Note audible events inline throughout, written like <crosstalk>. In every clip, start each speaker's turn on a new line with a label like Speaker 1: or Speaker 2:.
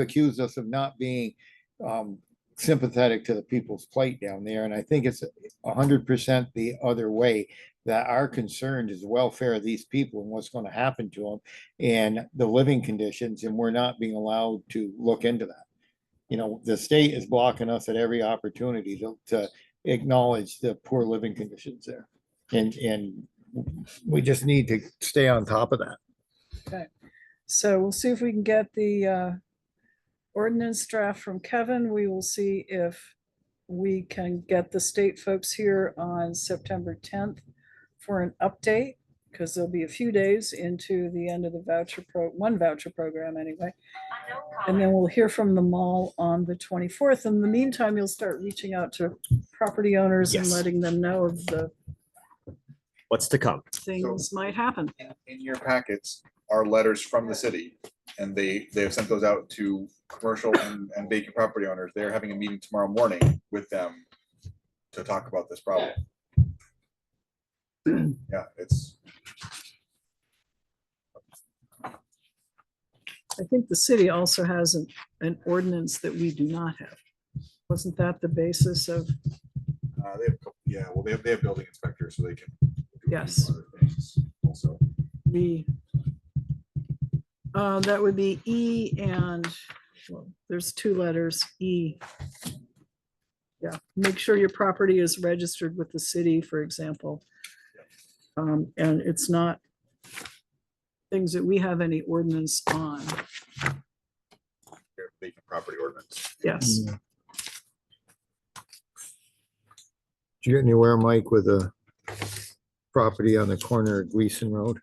Speaker 1: accused us of not being um, sympathetic to the people's plight down there, and I think it's a hundred percent the other way. That our concern is the welfare of these people and what's gonna happen to them and the living conditions, and we're not being allowed to look into that. You know, the state is blocking us at every opportunity to, to acknowledge the poor living conditions there. And, and we just need to stay on top of that.
Speaker 2: So we'll see if we can get the uh, ordinance draft from Kevin. We will see if we can get the state folks here on September tenth for an update, because there'll be a few days into the end of the voucher pro, one voucher program anyway. And then we'll hear from the mall on the twenty-fourth. In the meantime, you'll start reaching out to property owners and
Speaker 3: Yes.
Speaker 2: letting them know of the
Speaker 3: What's to come?
Speaker 2: things might happen.
Speaker 4: in- in your packets are letters from the city. And they, they have sent those out to commercial and and vacant property owners. They're having a meeting tomorrow morning with them to talk about this problem. Yeah, it's,
Speaker 2: I think the city also has an, an ordinance that we do not have. Wasn't that the basis of,
Speaker 4: uh, they have, a couple- yeah, well, they have, they have building inspectors, so they can. do a few
Speaker 2: Yes.
Speaker 4: other things Also,
Speaker 2: the uh, that would be E and, well, there's two letters, E. Yeah, make sure your property is registered with the city, for example. Um, and it's not things that we have any ordinance on.
Speaker 4: their vacant property ordinance.
Speaker 2: Yes,
Speaker 1: Did you get anywhere, Mike, with a property on the corner of Gleason Road?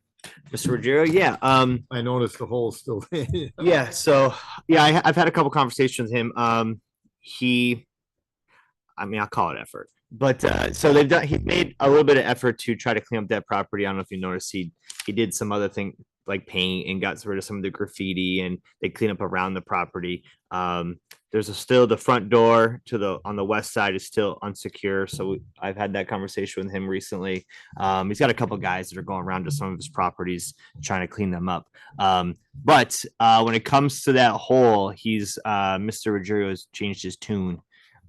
Speaker 3: Mr. Ruggiero, yeah, um,
Speaker 1: I noticed the hole's still. <laughs> there.
Speaker 3: yeah, so, yeah, I, I've had a couple conversations with him, um, he, I mean, I'll call it effort, but, uh, so they've done, he made a little bit of effort to try to clean up that property, I don't know if you noticed, he, he did some other thing, like paint and got rid of some of the graffiti and they clean up around the property. Um, there's a still, the front door to the, on the west side is still unsecure, so I've had that conversation with him recently. Um, he's got a couple guys that are going around to some of his properties, trying to clean them up. Um, but uh, when it comes to that hole, he's uh, Mr. Ruggiero has changed his tune.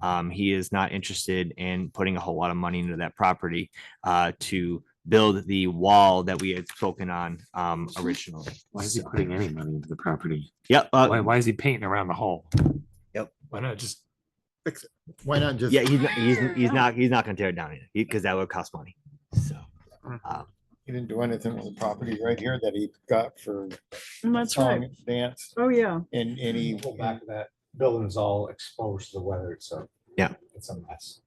Speaker 3: Um, he is not interested in putting a whole lot of money into that property uh, to build the wall that we had spoken on um, originally.
Speaker 5: Why is he putting any money into the property?
Speaker 3: Yep. Uh,
Speaker 5: Why, why is he painting around the hole?
Speaker 3: Yep.
Speaker 5: Why not just,
Speaker 1: Why not just?
Speaker 3: yeah, he's not, he's, he's not he's not going to tear it down because that would cost money. So um,
Speaker 1: He didn't do anything with the property right here that he got for.
Speaker 2: and that's right.
Speaker 1: song, Dance
Speaker 2: Oh, yeah.
Speaker 1: and, and he.
Speaker 6: Go back to that building is all exposed to the weather, so.
Speaker 3: Yeah.
Speaker 6: It's a mess.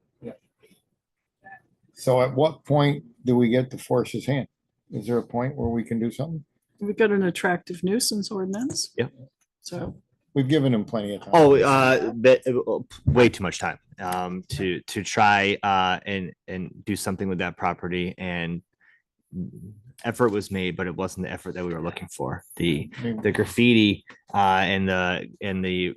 Speaker 1: So at what point do we get to force his hand? Is there a point where we can do something?
Speaker 2: We've got an attractive nuisance ordinance.
Speaker 3: Yep.
Speaker 2: So,
Speaker 1: We've given him plenty of time.
Speaker 3: oh, uh, that, uh, way too much time um, to to try uh, and and do something with that property and effort was made, but it wasn't the effort that we were looking for. The
Speaker 1: I mean,
Speaker 3: the graffiti uh, and the and the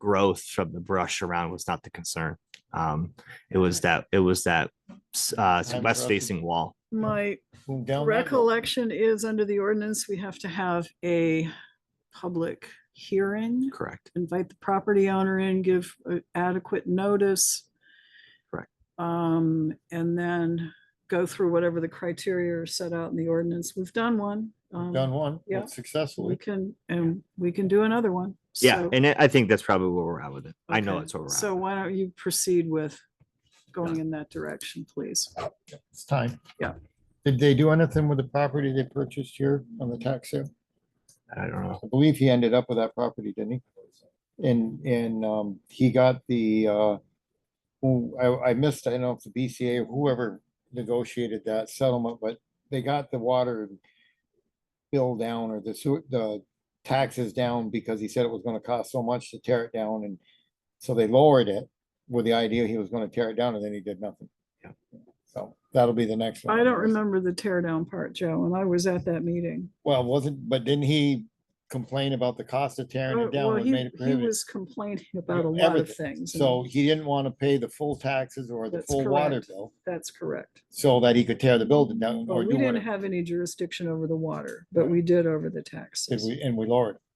Speaker 3: growth from the brush around was not the concern. Um, it was that it was that s- uh,
Speaker 1: Time
Speaker 3: west facing wall.
Speaker 2: my
Speaker 1: boom, down that road.
Speaker 2: Recollection is under the ordinance, we have to have a public hearing,
Speaker 3: Correct.
Speaker 2: invite the property owner in, give uh, adequate notice.
Speaker 3: Correct.
Speaker 2: Um, and then go through whatever the criteria are set out in the ordinance. We've done one. um,
Speaker 1: Done one
Speaker 2: Yeah. We
Speaker 1: successfully.
Speaker 2: can, and we can do another one.
Speaker 3: Yeah,
Speaker 2: So-
Speaker 3: and I I think that's probably where we're at with it. I know
Speaker 2: okay.
Speaker 3: that's where we're at.
Speaker 2: So
Speaker 3: with it.
Speaker 2: why don't you proceed with going in that direction, please?
Speaker 1: It's time.
Speaker 2: Yeah.
Speaker 1: Did they do anything with the property they purchased here on the tax sale?
Speaker 3: I don't know.
Speaker 1: I believe he ended up with that property, didn't he? And, and, um, he got the, uh, who, I, I missed, I don't know if the BCA, or whoever negotiated that settlement, but they got the water bill down or the sewer, the taxes down because he said it was gonna cost so much to tear it down and so they lowered it with the idea he was gonna tear it down and then he did nothing.
Speaker 3: Yeah.
Speaker 1: So that'll be the next one.
Speaker 2: I
Speaker 1: on the
Speaker 2: don't
Speaker 1: list.
Speaker 2: remember the tear down part, Joe, and I was at that meeting.
Speaker 1: Well, wasn't, but didn't he complain about the cost of tearing
Speaker 2: Oh,
Speaker 1: it down?
Speaker 2: Well,
Speaker 1: what
Speaker 2: he
Speaker 1: made it
Speaker 2: he
Speaker 1: prohibitive?
Speaker 2: was complaining about a lot of
Speaker 1: everything.
Speaker 2: things. and
Speaker 1: So he didn't want to pay the full taxes or the
Speaker 2: That's
Speaker 1: full water
Speaker 2: correct.
Speaker 1: bill
Speaker 2: That's correct.
Speaker 1: so that he could tear the building down
Speaker 2: Well,
Speaker 1: or do
Speaker 2: we didn't
Speaker 1: what.
Speaker 2: have any jurisdiction over the water, but we did over the
Speaker 1: Did
Speaker 2: taxes.
Speaker 1: we, and we lowered. it.